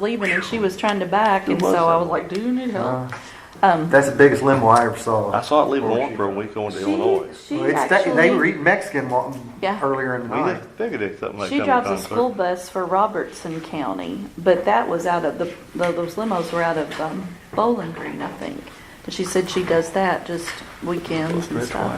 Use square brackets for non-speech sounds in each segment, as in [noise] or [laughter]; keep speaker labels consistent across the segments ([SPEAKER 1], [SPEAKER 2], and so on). [SPEAKER 1] leaving and she was trying to back, and
[SPEAKER 2] Who was
[SPEAKER 1] so I
[SPEAKER 2] that?
[SPEAKER 1] was like, "Do you need help?"
[SPEAKER 3] Uh,
[SPEAKER 1] Um,
[SPEAKER 3] That's the biggest limo I ever saw.
[SPEAKER 2] I saw it leaving one for a week going to
[SPEAKER 1] she,
[SPEAKER 2] Illinois.
[SPEAKER 1] she
[SPEAKER 3] Well, it's that-
[SPEAKER 1] actually
[SPEAKER 3] they were eating Mexican wa-
[SPEAKER 1] Yeah.
[SPEAKER 3] earlier in the
[SPEAKER 2] We
[SPEAKER 3] night.
[SPEAKER 2] just figured it something like
[SPEAKER 1] she
[SPEAKER 2] that.
[SPEAKER 1] drives a school bus for Robertson County, but that was out of the tho- those limos were out of um, Bowling Green, I think. And she said she does that just weekends and stuff.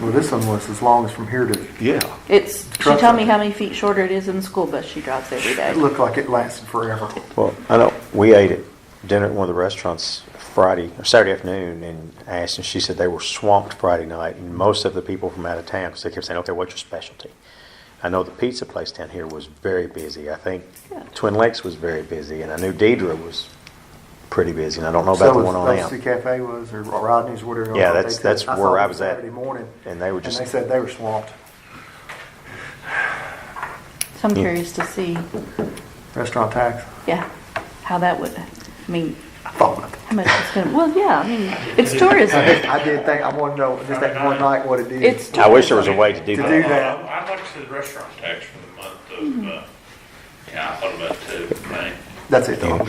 [SPEAKER 3] Well, this one was as long as from here to.
[SPEAKER 2] Yeah.
[SPEAKER 1] It's she
[SPEAKER 3] Truck
[SPEAKER 1] told me
[SPEAKER 3] driver.
[SPEAKER 1] how many feet shorter it is than the school bus she drives every
[SPEAKER 3] It
[SPEAKER 1] day.
[SPEAKER 3] looked like it lasted forever.
[SPEAKER 4] Well, I know we ate at dinner at one of the restaurants Friday or Saturday afternoon and asked, and she said they were swamped Friday night, and most of the people from out of town because they kept saying, "Okay, what's your specialty?" I know the pizza place down here was very busy. I think
[SPEAKER 1] Good.
[SPEAKER 4] Twin Lakes was very busy, and I knew Deidre was pretty busy, and I don't know about
[SPEAKER 3] So
[SPEAKER 4] the
[SPEAKER 3] was
[SPEAKER 4] one on
[SPEAKER 3] Dusty
[SPEAKER 4] out.
[SPEAKER 3] Cafe was, or Rodney's, whatever.
[SPEAKER 4] Yeah,
[SPEAKER 3] they
[SPEAKER 4] that's-
[SPEAKER 3] could.
[SPEAKER 4] that's
[SPEAKER 3] saw
[SPEAKER 4] where I
[SPEAKER 3] them
[SPEAKER 4] was at.
[SPEAKER 3] Saturday morning.
[SPEAKER 4] And they were just-
[SPEAKER 3] And they said they were swamped.
[SPEAKER 1] So I'm
[SPEAKER 4] Yeah.
[SPEAKER 1] curious to see,
[SPEAKER 3] Restaurant tax.
[SPEAKER 1] yeah, how that would. I mean,
[SPEAKER 3] I thought about that.
[SPEAKER 1] how much it's gonna. Well, yeah. I mean, it's tourism.
[SPEAKER 3] I did think, I wanted to know just that one night what it did.
[SPEAKER 1] It's
[SPEAKER 4] I wish there was a way to do
[SPEAKER 3] To
[SPEAKER 4] that.
[SPEAKER 3] do that.
[SPEAKER 5] Uh, I'd like to see the restaurant tax for the month of, uh, yeah, I thought about two, May.
[SPEAKER 3] That's it. though.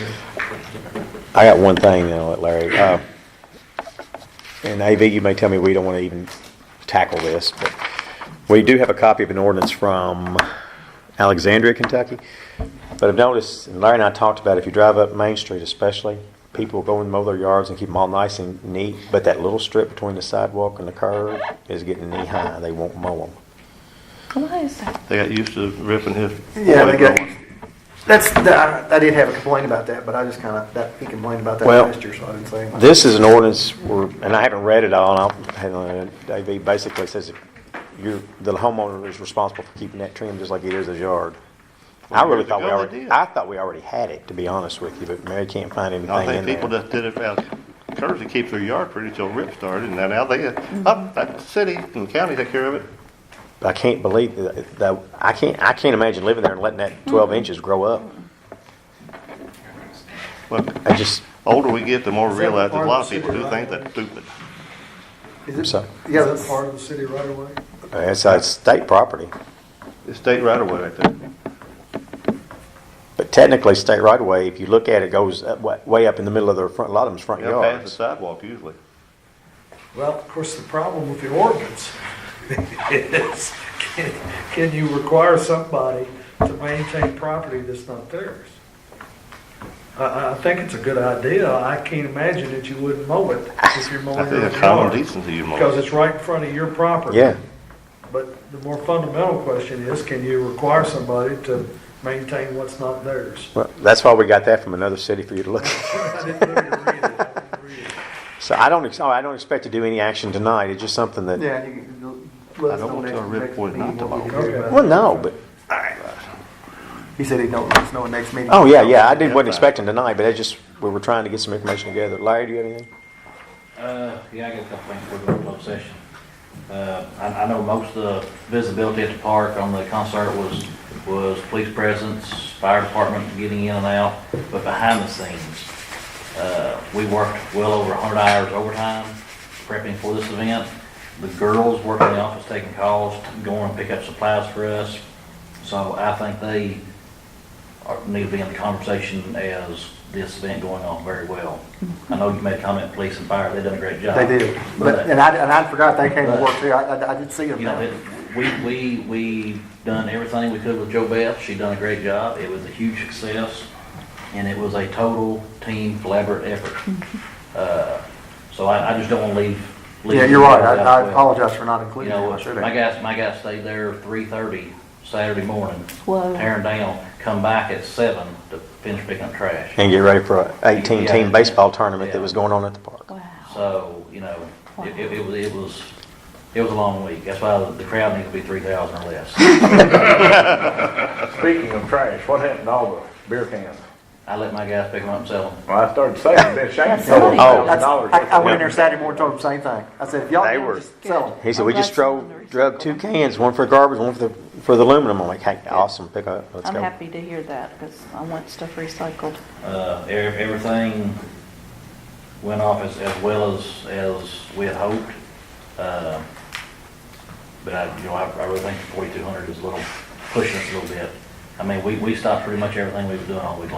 [SPEAKER 4] I got one thing, then I'll let Larry. Uh, And AV, you may tell me we don't want to even tackle this, but we do have a copy of an ordinance from Alexandria, Kentucky. But I've noticed, and Larry and I talked about, it, if you drive up Main Street especially, people go and mow their yards and keep them all nice and neat, but that little strip between the sidewalk and the curb is getting knee-high. They won't mow them.
[SPEAKER 1] Why is that?
[SPEAKER 2] They got used to ripping his.
[SPEAKER 3] Yeah, they got,
[SPEAKER 2] going.
[SPEAKER 3] that's, that- I I did have a complaint about that, but I just kind of, that, he complained about that
[SPEAKER 4] Well,
[SPEAKER 3] last year, so I didn't say anything.
[SPEAKER 4] This is an ordinance, where- and I haven't read it all, and I'll, hang on, AV basically says that you're, the homeowner is responsible for keeping that trim just like it is his yard. I really
[SPEAKER 2] Years
[SPEAKER 4] thought we
[SPEAKER 2] ago, they
[SPEAKER 4] already,
[SPEAKER 2] did.
[SPEAKER 4] I thought we already had it, to be honest with you, but Mary can't find
[SPEAKER 2] I
[SPEAKER 4] anything
[SPEAKER 2] think people
[SPEAKER 4] in there.
[SPEAKER 2] just did it out curves to keep their yard pretty till rip started, and now they,
[SPEAKER 1] Mm-hmm.
[SPEAKER 2] up, that city and county take care of it.
[SPEAKER 4] I can't believe that, that, I can't, I can't imagine living there and letting that twelve inches grow up.
[SPEAKER 2] But
[SPEAKER 4] I just,
[SPEAKER 2] older we get, the more we
[SPEAKER 6] Is that
[SPEAKER 2] realize that a
[SPEAKER 6] part
[SPEAKER 2] lot
[SPEAKER 6] of
[SPEAKER 2] of
[SPEAKER 6] the
[SPEAKER 2] people
[SPEAKER 6] city
[SPEAKER 2] do
[SPEAKER 6] right
[SPEAKER 2] think that's stupid.
[SPEAKER 3] Is it-
[SPEAKER 4] So-
[SPEAKER 3] Yeah,
[SPEAKER 6] Is
[SPEAKER 3] that's
[SPEAKER 6] that part of the city right away?
[SPEAKER 4] it's, it's state property,
[SPEAKER 2] It's state right away right there.
[SPEAKER 4] but technically state right of way, if you look at it, goes up- wa- way up in the middle of their front, a lot of them's front
[SPEAKER 2] They pass the
[SPEAKER 4] yards.
[SPEAKER 2] sidewalk usually.
[SPEAKER 6] Well, of course, the problem with the ordinance is, can- can you require somebody to maintain property that's not theirs? I- I, I think it's a good idea. I can't imagine that you wouldn't mow it if you're
[SPEAKER 2] I
[SPEAKER 6] mowing
[SPEAKER 2] think
[SPEAKER 6] your
[SPEAKER 2] it's common
[SPEAKER 6] yard.
[SPEAKER 2] decency you
[SPEAKER 6] Because
[SPEAKER 2] most.
[SPEAKER 6] it's right in front of your property.
[SPEAKER 4] Yeah,
[SPEAKER 6] But the more fundamental question is, can you require somebody to maintain what's not theirs? [laughs]
[SPEAKER 4] well, that's why we got that from another city for you to look at.
[SPEAKER 6] I didn't really read it. I didn't read it.
[SPEAKER 4] So I don't, ex- oh, I don't expect to do any action tonight, it's just something that,
[SPEAKER 3] Yeah, you can- let
[SPEAKER 2] I
[SPEAKER 3] us
[SPEAKER 2] don't
[SPEAKER 3] know
[SPEAKER 2] want
[SPEAKER 3] next-
[SPEAKER 2] y'all to rip
[SPEAKER 3] next
[SPEAKER 2] boy
[SPEAKER 3] meeting
[SPEAKER 2] not to
[SPEAKER 3] what we
[SPEAKER 6] mow.
[SPEAKER 3] can do about it.
[SPEAKER 4] well, no, but,
[SPEAKER 3] He said he'd know, let us know next meeting.
[SPEAKER 4] oh, yeah, yeah, I did, wasn't expecting tonight, but I just, we were trying to get some information together. Larry, do you have anything?
[SPEAKER 7] Uh, yeah, I got a couple things for the closed session. Uh, I, I know most of the visibility at the park on the concert was, was police presence, fire department getting in and out, but behind the scenes, uh, we worked well over hundred hours overtime prepping for this event. The girls worked in the office taking calls, going and pick up supplies for us. So I think they are- need to be in the conversation as this event going on very well. I know you made a comment, police and fire, they done a great job.
[SPEAKER 3] They did, but,
[SPEAKER 7] But,
[SPEAKER 3] and I, and I forgot they came to
[SPEAKER 7] But-
[SPEAKER 3] work too, I, I- I did see them.
[SPEAKER 7] you know, it- we, we, we done everything we could with Joe Beth, she done a great job, it was a huge success, and it was a total team collaborative effort. Uh, So I, I just don't wanna leave. leave
[SPEAKER 3] Yeah, you're right,
[SPEAKER 7] anybody out
[SPEAKER 3] I, I
[SPEAKER 7] with-
[SPEAKER 3] apologize for not
[SPEAKER 7] You
[SPEAKER 3] including them,
[SPEAKER 7] know,
[SPEAKER 3] I should
[SPEAKER 7] my
[SPEAKER 3] have.
[SPEAKER 7] guys, my guys stayed there three thirty Saturday morning,
[SPEAKER 1] Whoa.
[SPEAKER 7] tearing down, come back at seven to finish picking up trash.
[SPEAKER 4] And get ready for a eighteen-team
[SPEAKER 7] Yeah.
[SPEAKER 4] baseball tournament that was going on at the park.
[SPEAKER 1] Wow.
[SPEAKER 7] So, you know, it, it, it was, it was, it was a long week. That's why the crowd needed to be three thousand or less.
[SPEAKER 8] Speaking of trash, what happened to all the beer cans?
[SPEAKER 7] I let my guys pick them up and sell them.
[SPEAKER 8] Well, I started saving, then Shane
[SPEAKER 1] That's
[SPEAKER 8] sold
[SPEAKER 1] right.
[SPEAKER 8] a
[SPEAKER 4] Oh.
[SPEAKER 8] thousand dollars.
[SPEAKER 3] I, I went in there Saturday morning, told them the same thing, I said, if y'all
[SPEAKER 4] They
[SPEAKER 3] can,
[SPEAKER 4] were-
[SPEAKER 3] just sell them.
[SPEAKER 4] He said, we
[SPEAKER 1] I'm
[SPEAKER 4] just
[SPEAKER 1] glad someone
[SPEAKER 4] drove,
[SPEAKER 1] recycled
[SPEAKER 4] drove two cans, one for garbage, one for the, for the aluminum. I'm like, hey, awesome, pick up, let's
[SPEAKER 1] I'm
[SPEAKER 4] go.
[SPEAKER 1] happy to hear that because I want stuff recycled.
[SPEAKER 7] Uh, ev- everything went off as, as well as, as we had hoped. Uh, But I, you know, I I really think forty-two hundred is a little, pushing us a little bit. I mean, we, we stopped pretty much everything we was doing all week long.